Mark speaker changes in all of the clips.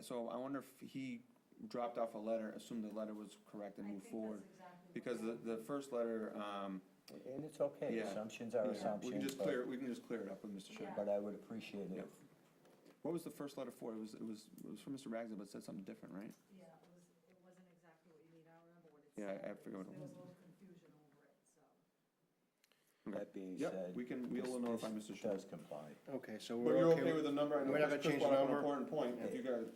Speaker 1: so I wonder if he dropped off a letter, assumed the letter was correct and
Speaker 2: I
Speaker 1: moved
Speaker 2: think that's
Speaker 1: forward.
Speaker 2: exactly what
Speaker 1: Because the,
Speaker 2: happened.
Speaker 1: the first letter, um,
Speaker 3: And it's okay,
Speaker 1: Yeah.
Speaker 3: assumptions
Speaker 1: yeah, we
Speaker 3: are
Speaker 1: can
Speaker 3: assumptions,
Speaker 1: just
Speaker 3: but,
Speaker 1: clear, we can just clear it up with Mr. Sherman.
Speaker 3: but I would appreciate it.
Speaker 1: Yep. What was the first letter for? It was, it was, it was from Mr. Ragsdale, but it said something different, right?
Speaker 2: Yeah, it was, it wasn't exactly what you need, I remember what it
Speaker 1: Yeah,
Speaker 2: said.
Speaker 1: I- I forget what it
Speaker 2: There
Speaker 1: was.
Speaker 2: a little confusion over it, so.
Speaker 1: Okay.
Speaker 3: That being
Speaker 1: Yep,
Speaker 3: said.
Speaker 1: we can- we'll
Speaker 3: this-
Speaker 1: notify
Speaker 3: this
Speaker 1: Mr. Sherman.
Speaker 3: Does comply.
Speaker 4: Okay, so
Speaker 1: But
Speaker 4: we're
Speaker 1: you're
Speaker 4: okay
Speaker 1: okay with the number? I know
Speaker 4: We're not gonna
Speaker 1: Chris
Speaker 4: change
Speaker 1: brought
Speaker 4: the
Speaker 1: up an
Speaker 4: number.
Speaker 1: Important point, if you guys,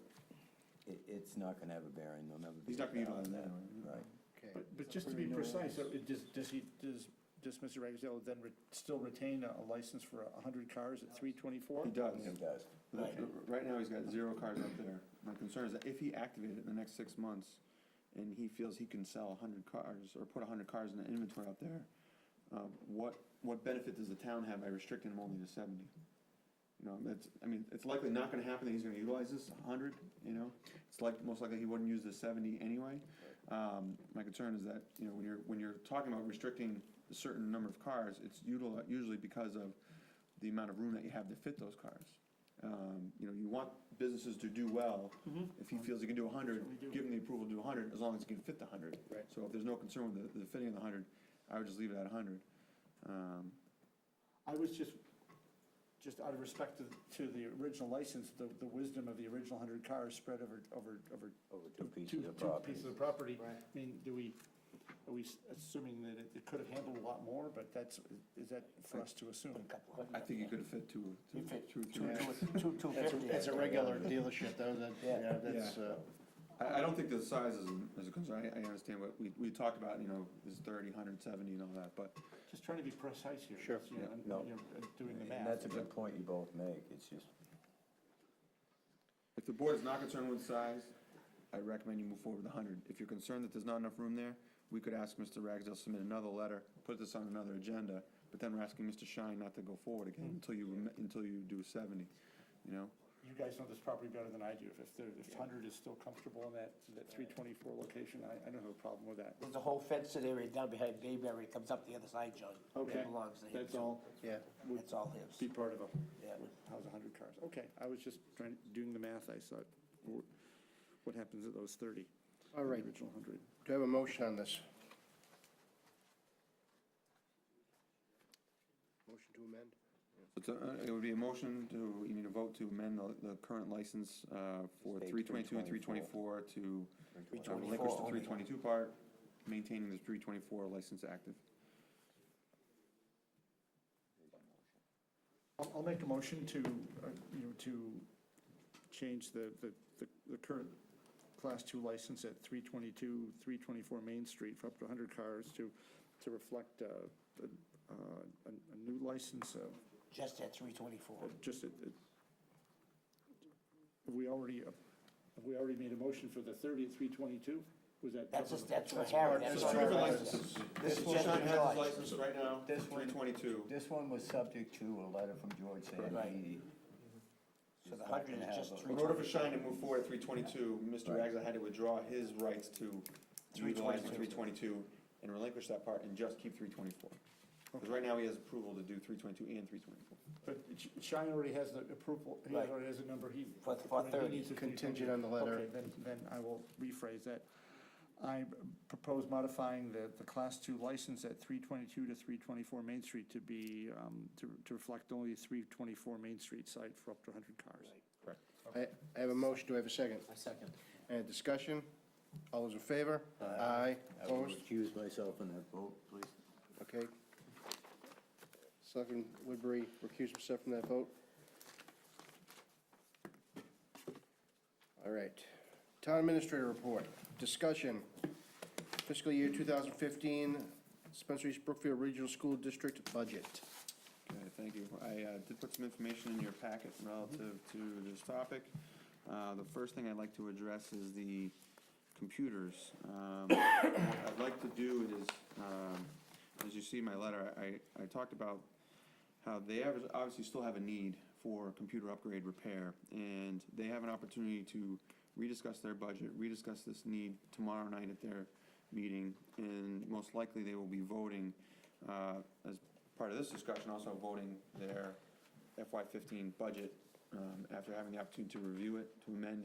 Speaker 3: It, it's not gonna have a bearing, they'll never be.
Speaker 1: He's not gonna utilize that,
Speaker 3: Right.
Speaker 4: Okay.
Speaker 5: But, but just to be precise, so it does, does he, does, does Mr. Ragsdale then re- still retain a a license for a hundred cars at three twenty-four?
Speaker 1: he does.
Speaker 3: It does.
Speaker 1: But Right now, he's got zero cars up there. My concern is that if he activated it in the next six months, and he feels he can sell hundred cars, or put hundred cars in the inventory out there, um, what, what benefit does the town have by restricting him only to seventy? You know, that's, I mean, it's likely not gonna happen that he's gonna utilize this hundred, you know? It's like, most likely he wouldn't use the seventy anyway. Um, my concern is that, you know, when you're, when you're talking about restricting a certain number of cars, it's utili- usually because of the amount of room that you have to fit those cars. Um, you know, you want businesses to do well. If he feels he can Mm-hmm. do hundred, give him the approval to do hundred, as long as he can fit the hundred.
Speaker 4: Right.
Speaker 1: So if there's no concern with the, the fitting of the hundred, I would just leave it at hundred. Um,
Speaker 5: I was just, just out of respect to, to the original license, the, the wisdom of the original hundred cars spread over, over, over.
Speaker 3: Over two pieces
Speaker 5: Oh, two-
Speaker 3: of
Speaker 5: two
Speaker 3: property.
Speaker 5: pieces of property.
Speaker 4: Right.
Speaker 5: I mean, do we, are we s- assuming that it, it could have handled a lot more, but that's, is that for us to assume?
Speaker 1: I think he could have fit two, two, two, two.
Speaker 3: Two, two
Speaker 4: That's,
Speaker 3: fifty.
Speaker 4: a- that's a regular dealership, though, that, you know, that's,
Speaker 1: Yeah.
Speaker 4: uh,
Speaker 1: I, I don't think the size is, is a concern. I, I understand what, we, we talked about, you know, is thirty, hundred seventy and all that, but
Speaker 5: Just trying to be precise here.
Speaker 4: Sure.
Speaker 5: You know, and-
Speaker 3: No.
Speaker 5: you know, and doing the
Speaker 3: And
Speaker 5: math.
Speaker 3: that's a good point you both make, it's just,
Speaker 1: if the board is not concerned with size, I recommend you move forward with hundred. If you're concerned that there's not enough room there, we could ask Mr. Ragsdale, to submit another letter, put this on another agenda, but then we're asking Mr. Shine not to go forward again until you, rem- until you do seventy, you know?
Speaker 5: You guys know this property better than I do. If- If, there- if hundred is still comfortable in that, that three twenty-four location, I, I don't have a problem with that.
Speaker 6: There's a whole fenced area down behind Bayberry, it comes up the other side, John. It
Speaker 5: Okay,
Speaker 6: belongs to him,
Speaker 5: that's
Speaker 6: so
Speaker 5: all,
Speaker 4: yeah.
Speaker 5: would
Speaker 6: That's all his.
Speaker 5: be part of a,
Speaker 6: Yeah.
Speaker 5: how's a hundred cars? Okay, I was just trying, doing the math, I saw, wh- what happens at those thirty?
Speaker 4: All right, do
Speaker 5: Original hundred.
Speaker 4: I have a motion on this? Motion to amend?
Speaker 1: It's a- uh, It would be a motion to, you need a vote to amend the, the current license uh, for
Speaker 3: Stay
Speaker 1: three twenty-two and three twenty-four to uh, relinquish the
Speaker 6: 324.
Speaker 1: three twenty-two part, maintaining the three twenty-four license active.
Speaker 5: I'll, I'll make a motion to, uh, you know, to change the, the, the- the current class two license at three twenty-two, three twenty-four Main Street for up to hundred cars to, to reflect, uh, the, uh, a, a new license, uh,
Speaker 6: Just at three
Speaker 5: uh,
Speaker 6: twenty-four.
Speaker 5: just it, it, have we already, uh, have we already made a motion for the thirty at three twenty-two? Was that?
Speaker 6: That's just, that's for Harry, that's
Speaker 1: There's
Speaker 6: all
Speaker 1: two different
Speaker 6: Harry.
Speaker 1: licenses.
Speaker 6: This is
Speaker 1: Well,
Speaker 6: just
Speaker 1: Sean has his
Speaker 6: July.
Speaker 1: license right now,
Speaker 3: This one-
Speaker 1: three twenty-two.
Speaker 3: this one was subject to a letter from George
Speaker 6: Right.
Speaker 3: saying he.
Speaker 6: So the
Speaker 3: not
Speaker 6: 100
Speaker 3: gonna have
Speaker 6: is just
Speaker 3: a-
Speaker 6: three
Speaker 1: In order for Shine to move forward at three twenty-two, Mr. Ragsdale had to withdraw his rights to utilize the three twenty-two and relinquish that part and just keep three twenty-four. Because right now he has approval to do three twenty-two and three twenty-four.
Speaker 5: But Sh- Shine already has the approval, he
Speaker 6: Right.
Speaker 5: already has a number, he.
Speaker 6: For- for
Speaker 5: he
Speaker 6: 30.
Speaker 5: needs a three
Speaker 4: Contingent
Speaker 5: twenty.
Speaker 4: on the letter.
Speaker 5: Okay, then, then I will rephrase that. I propose modifying the, the class two license at three twenty-two to three twenty-four Main Street to be, um, to, to reflect only three twenty-four Main Street site for up to hundred cars.
Speaker 1: Correct.
Speaker 4: I, I have a motion, do I have a second?
Speaker 6: I second.
Speaker 4: Any discussion? All those in favor? Aye.
Speaker 3: I will
Speaker 4: Opposed?
Speaker 3: recuse myself in that vote, please.
Speaker 4: Okay. Selectman Woodbury recused himself from that vote. All right. Town Administrator Report. Discussion. Fiscal year 2015 Spencer East Brookfield Regional School District Budget.
Speaker 1: Okay, thank you. I uh, did put some information in your packet relative to this topic. Uh, The first thing I'd like to address is the computers. Um, What I'd like to do is, um, as you see in my letter, I, I talked about how Uh, they obvi- obviously still have a need for computer upgrade repair, and they have an opportunity to rediscuss their budget, rediscuss this need tomorrow night at their meeting, and most likely they will be voting, uh, as part of this discussion, also voting their FY fifteen budget, um, after having the opportunity to review it, to amend it.